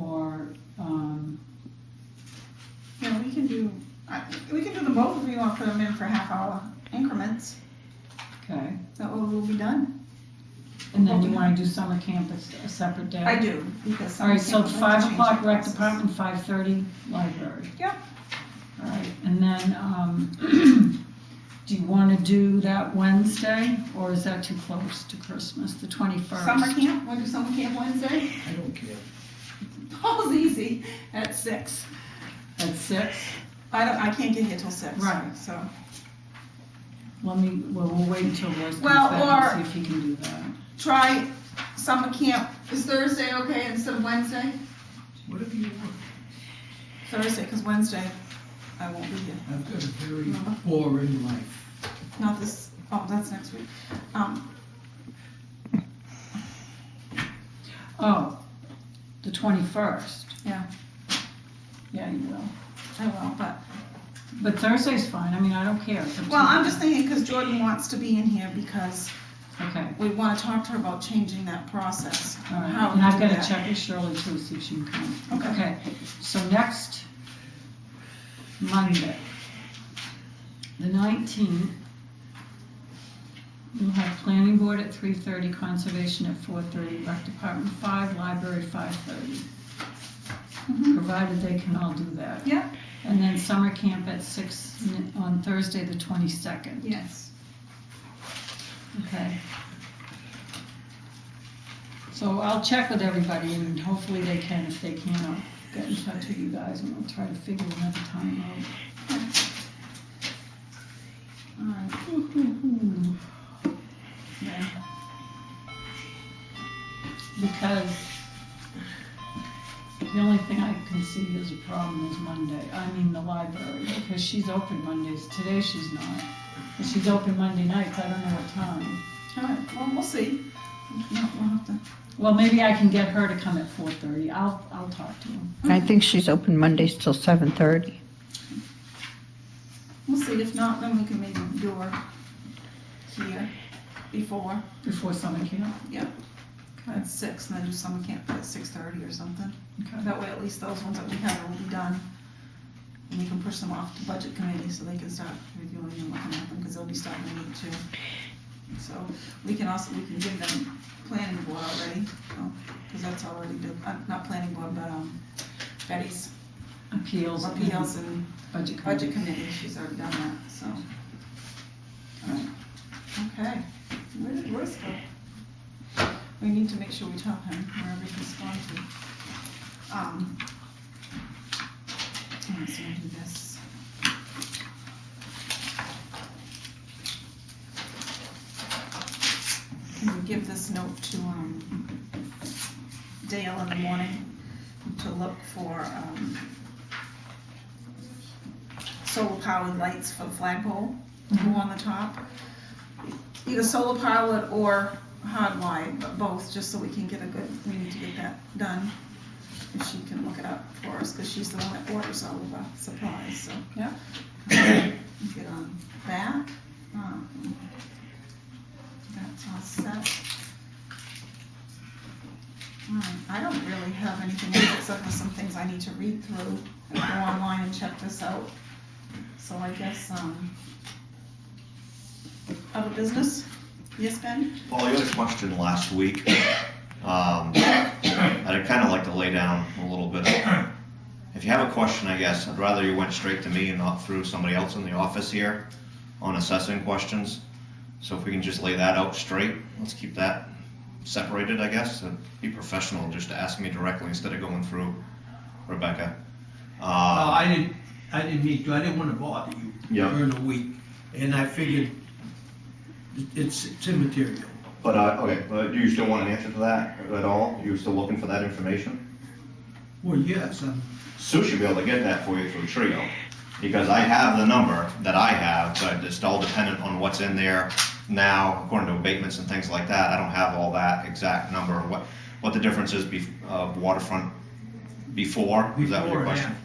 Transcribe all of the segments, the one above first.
um, can do, I, we can do them both if we want to put them in for half hour increments. Okay, That way we'll be done. and then you wanna do summer camp as a separate day? I do, because some. All right, so people five like to change o'clock their rec classes. department, five thirty library. Yep. All right, and then, um, do you wanna do that Wednesday, or is that too close to Christmas, the twenty-first? Summer camp, wanna do summer camp Wednesday? I don't care. Paul's easy, at six. At six? I don't, I can't get here till six. Right. So, Let me, well, we'll wait until Rose comes Well, back and see if he can do that. try summer camp, is Thursday okay instead of Wednesday? Whatever you want. Thursday, cause Wednesday I won't be here. I've got a very No. boring life. Not this, oh, that's next week. Um, Oh, the twenty-first. Yeah. Yeah, you will. I will, but But Thursday's fine, I mean, I don't care. It's up to Well, I'm you. just thinking, because Jordan wants to be in here because Okay, we want to talk to her about changing that process. all How right, we and I've do gotta that. check with Shirley too, see if she can come. Okay. Okay, so next Monday, the nineteenth, we'll have planning board at three thirty, conservation at four thirty, rec department five, library five thirty, Mhm. provided they can all do that. Yeah. And then summer camp at six n- on Thursday, the twenty-second. Yes. Okay. So I'll check with everybody and hopefully they can, if they can, I'll get in touch with you guys and we'll try to figure another time out. All right. Yeah. Because the only thing I can see is a problem is Monday, I mean the library, because she's open Mondays, today she's not. But she's open Monday nights, I don't know what time. All right. Well, we'll see. No, we'll have to. Well, maybe I can get her to come at four thirty. I'll, I'll talk to him. I think she's open Mondays till seven thirty. We'll see. If not, then we can maybe do her here before Before summer camp. at six, and then do summer camp at six thirty or something. That way, at least those ones that we have will be done, and we can push them off to budget committee so they can start reviewing and looking at them because they'll be starting to meet too. So we can also we can give them planning board already, because that's already do, uh, not planning board but um Betty's Appeals. and appeals and Budget. budget committee. committee. She's already done that. So. Alright. Okay. Where did Royce go? We need to make sure we tell him wherever he's gone to. Um. all right, so we'll do this. Can we give this note to, um, Dale in the morning to look for, um, solar powered lights for the flagpole, blue on the top? either solar powered or hardwired, but both, just so we can get a good, we need to get that done. If she can look it up for us, because she's the one that orders all of our supplies, so. Yeah. Get on that. Um, That's all set. Alright, I don't really have anything else except for some things I need to read through, and go online and check this out. So I guess, um, other business? Yes, Ben? Paul, you had a question last week. Um, and I'd kind of like to lay down a little bit. If you have a question, I guess, I'd rather you went straight to me and not through somebody else in the office here on assessing questions. So if we can just lay that out straight, let's keep that separated, I guess, and be professional, just to ask me directly instead of going through Rebecca. Uh, Uh, I didn't, I didn't mean to, I didn't wanna bother you Yeah. during the week, and I figured it- it's, it's immaterial. But, uh, okay, but do you still want an answer to that at all? You still looking for that information? Well, yes, um, I'm, Sue should be able to get that for you through Trio, because I have the number that I have, but it's all dependent on what's in there now, according to abatements and things like that, I don't have all that exact number, what, what the difference is bef of waterfront before, is that what your before and question? after.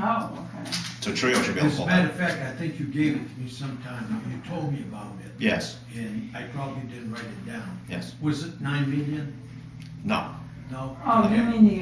Oh, okay. So Trio should be able to As a pull matter that, of fact, I think you gave it to me sometime, ago. you told me about it, yes, and I probably didn't write it down. yes, Was it nine million? no, No? Oh, you Okay. mean the